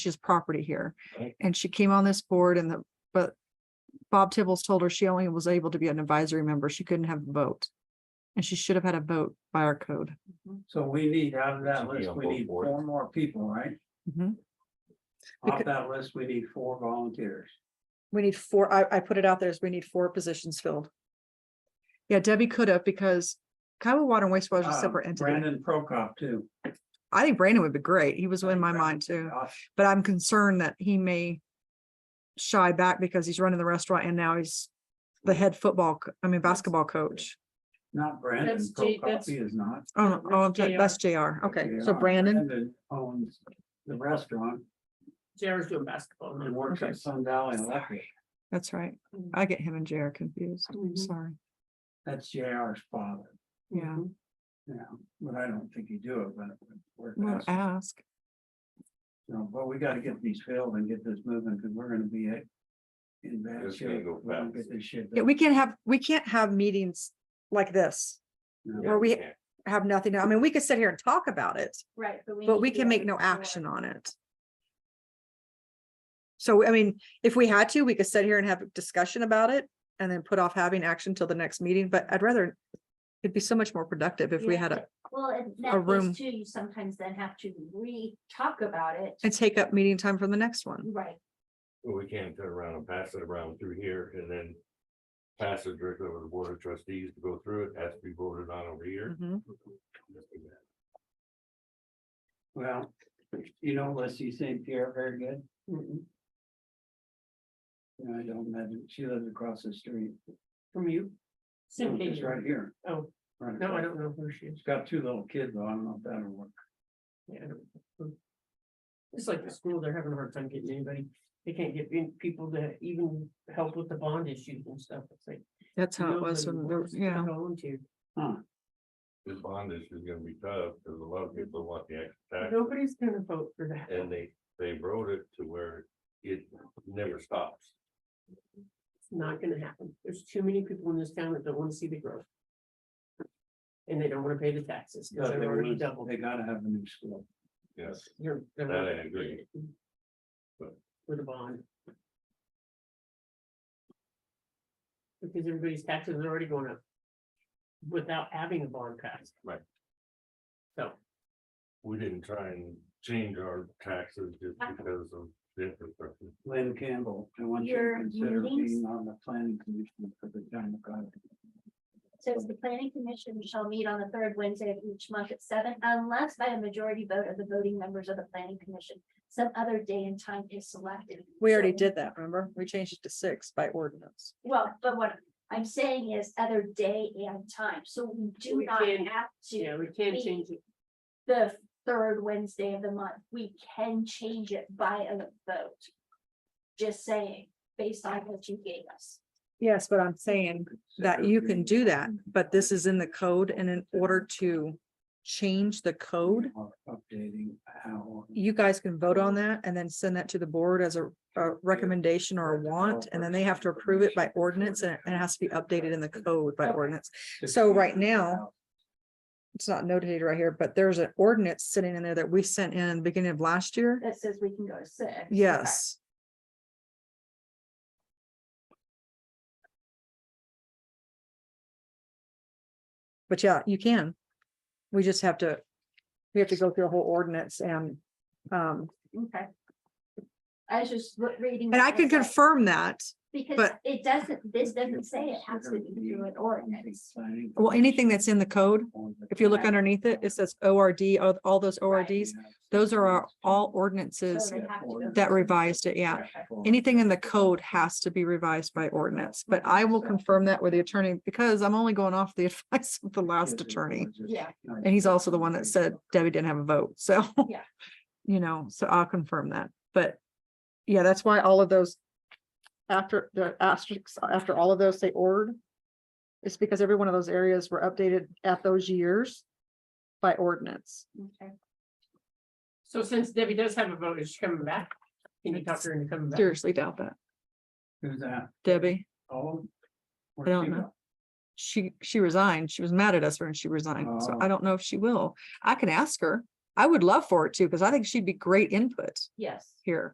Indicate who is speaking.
Speaker 1: She's property here.
Speaker 2: Right.
Speaker 1: And she came on this board and the, but Bob Tibbles told her she only was able to be an advisory member. She couldn't have a vote. And she should have had a vote by our code.
Speaker 3: So we need out of that
Speaker 2: Should be
Speaker 3: list,
Speaker 2: on
Speaker 3: we
Speaker 2: both
Speaker 3: need
Speaker 2: boards.
Speaker 3: four more people, right?
Speaker 1: Mhm.
Speaker 3: Off
Speaker 1: Becau-
Speaker 3: that list, we need four volunteers.
Speaker 1: We need four, I, I put it out there as we need four positions filled. Yeah, Debbie could have because Kiowa Water and Wastewater is a
Speaker 3: Uh,
Speaker 1: separate entity.
Speaker 3: Brandon Prokop too.
Speaker 1: I think Brandon would be great. He was
Speaker 3: I
Speaker 1: in
Speaker 3: think
Speaker 1: my
Speaker 3: Brandon-
Speaker 1: mind too,
Speaker 3: Uh,
Speaker 1: but I'm concerned that he may shy back because he's running the restaurant and now he's the head football, co- I mean basketball coach.
Speaker 3: Not Brandon
Speaker 4: That's J-
Speaker 3: Prokop,
Speaker 4: that's-
Speaker 3: he is not.
Speaker 1: Oh,
Speaker 4: Yeah,
Speaker 1: no, oh, I'm
Speaker 4: that's
Speaker 1: sorry,
Speaker 4: JR.
Speaker 1: that's JR. Okay, so
Speaker 3: Yeah,
Speaker 1: Brandon,
Speaker 3: Owns the restaurant
Speaker 4: JR's doing basketball.
Speaker 3: and works at Sun Valley Electric.
Speaker 1: that's right.
Speaker 4: Mhm.
Speaker 1: I get him and JR confused. I'm
Speaker 4: Mhm.
Speaker 1: Sorry.
Speaker 3: That's JR's father,
Speaker 1: Yeah,
Speaker 3: you know, but I don't think he do it, but. it would work
Speaker 1: I'm gonna
Speaker 3: best.
Speaker 1: ask.
Speaker 3: You know, but we gotta get these filled and get this moving, because we're gonna be at. In bad
Speaker 2: This is gonna
Speaker 3: shape.
Speaker 2: go
Speaker 3: if we don't
Speaker 2: fast.
Speaker 3: Get this shit.
Speaker 1: Yeah,
Speaker 3: done.
Speaker 1: we can't have, we can't have meetings like this,
Speaker 3: No.
Speaker 1: where we have nothing. I mean, we could sit here and talk about it,
Speaker 4: Right.
Speaker 1: but we can make no action on it. So, I mean, if we had to, we could sit here and have a discussion about it and then put off having action till the next meeting, but I'd rather it'd be so much more productive if we
Speaker 4: Yeah.
Speaker 1: had a,
Speaker 5: Well, and
Speaker 1: a
Speaker 5: that
Speaker 1: room.
Speaker 5: is too, you sometimes then have to re-talk about
Speaker 1: and
Speaker 5: it.
Speaker 1: take up meeting time from the next one.
Speaker 5: Right,
Speaker 2: But we can't turn around and pass it around through here and then. Pass it directly over to the board of trustees to go through it, has to be voted on over here.
Speaker 1: Mhm.
Speaker 3: Well, you know, Leslie St. Pierre very good. No, I don't imagine, she lives across the street.
Speaker 4: From you?
Speaker 3: No,
Speaker 4: Simply,
Speaker 3: It's right here.
Speaker 4: oh,
Speaker 3: right
Speaker 4: no, I
Speaker 3: across.
Speaker 4: don't know who she is.
Speaker 3: She's got two little kids, though, I don't know if that'll work.
Speaker 4: Yeah, I don't know. It's like the school, they're having a hard time getting anybody. They can't get in- people to even help with the bond issues and stuff. It's like.
Speaker 1: That's how
Speaker 4: you
Speaker 1: it
Speaker 4: know,
Speaker 1: was
Speaker 4: the
Speaker 1: when,
Speaker 4: board's
Speaker 1: the- yeah,
Speaker 4: Volunteer.
Speaker 2: This bond issue is gonna be tough, because a lot of people want the extra tax,
Speaker 4: Nobody's gonna vote for that.
Speaker 2: and they, they wrote it to where it never stops.
Speaker 4: It's not gonna happen. There's too many people in this town that don't wanna see the growth. And they don't wanna pay the taxes because
Speaker 3: But
Speaker 4: they're
Speaker 3: they
Speaker 4: already
Speaker 3: wanna-
Speaker 4: doubled.
Speaker 3: They gotta have a new school.
Speaker 2: Yes,
Speaker 4: You're. they're
Speaker 2: That
Speaker 4: not
Speaker 2: I
Speaker 4: gonna
Speaker 2: agree.
Speaker 4: get it
Speaker 2: But-
Speaker 4: With a bond. Because everybody's taxes are already going up. Without having a bond passed.
Speaker 2: Right.
Speaker 4: So,
Speaker 2: we didn't try and change our taxes just because of the infrastructure.
Speaker 3: Lynn Campbell, I want you to
Speaker 5: Your
Speaker 3: consider being
Speaker 5: meetings?
Speaker 3: on the planning commission for the town of God.
Speaker 5: says the planning commission shall meet on the third Wednesday of each month at seven, unless by a majority vote of the voting members of the planning commission. Some other day and time is selected.
Speaker 1: we already
Speaker 5: So-
Speaker 1: did that, remember? We changed it to six by ordinance.
Speaker 5: Well, but what I'm saying is other day and time, so we do
Speaker 4: We
Speaker 5: not
Speaker 4: can-
Speaker 5: have
Speaker 4: yeah,
Speaker 5: to
Speaker 4: we can't
Speaker 5: we-
Speaker 4: change it.
Speaker 5: the third Wednesday of the month. We can change it by a vote. Just saying, based on what you gave us.
Speaker 1: Yes, but I'm saying that you can do that, but this is in the code and in order to change the code,
Speaker 3: Updating how.
Speaker 1: you guys can vote on that and then send that to the board as a, a recommendation or a want, and then they have to approve it by ordinance and it and it has to be updated in the code by ordinance. So right now- It's not notated right here, but there's an ordinance sitting in there that we sent in beginning of last year.
Speaker 5: That says we can go to six.
Speaker 1: Yes. But yeah, you can. We just have to, we have to go through a whole ordinance and, um,
Speaker 5: Okay. I was just re- reading.
Speaker 1: and I
Speaker 5: that
Speaker 1: can
Speaker 5: as like-
Speaker 1: confirm that.
Speaker 5: Because
Speaker 1: but-
Speaker 5: it doesn't, this doesn't say it has to be through an ordinance.
Speaker 1: Well, anything that's in the code, if you look underneath it, it says ORD, all- all those ORDs. Those are our, all ordinances
Speaker 5: So they have to go-
Speaker 1: that revised it, yeah. Anything in the code has to be revised by ordinance, but I will confirm that with the attorney because I'm only going off the advice of the last attorney.
Speaker 5: Yeah.
Speaker 1: And he's also the one that said Debbie didn't have a vote, so.
Speaker 5: Yeah.
Speaker 1: You know, so I'll confirm that, but yeah, that's why all of those. After the asterisks, after all of those say ordered. It's because every one of those areas were updated at those years. By ordinance.
Speaker 5: Okay.
Speaker 4: So since Debbie does have a vote, is she coming back? Can you talk her into coming back?
Speaker 1: Seriously doubt that.
Speaker 3: Who's that?
Speaker 1: Debbie,
Speaker 3: Oh.
Speaker 1: I don't know. she, she resigned. She was mad at us when she resigned, so I
Speaker 3: Oh.
Speaker 1: don't know if she will. I can ask her. I would love for it too, because I think she'd be great input
Speaker 5: Yes.
Speaker 1: here.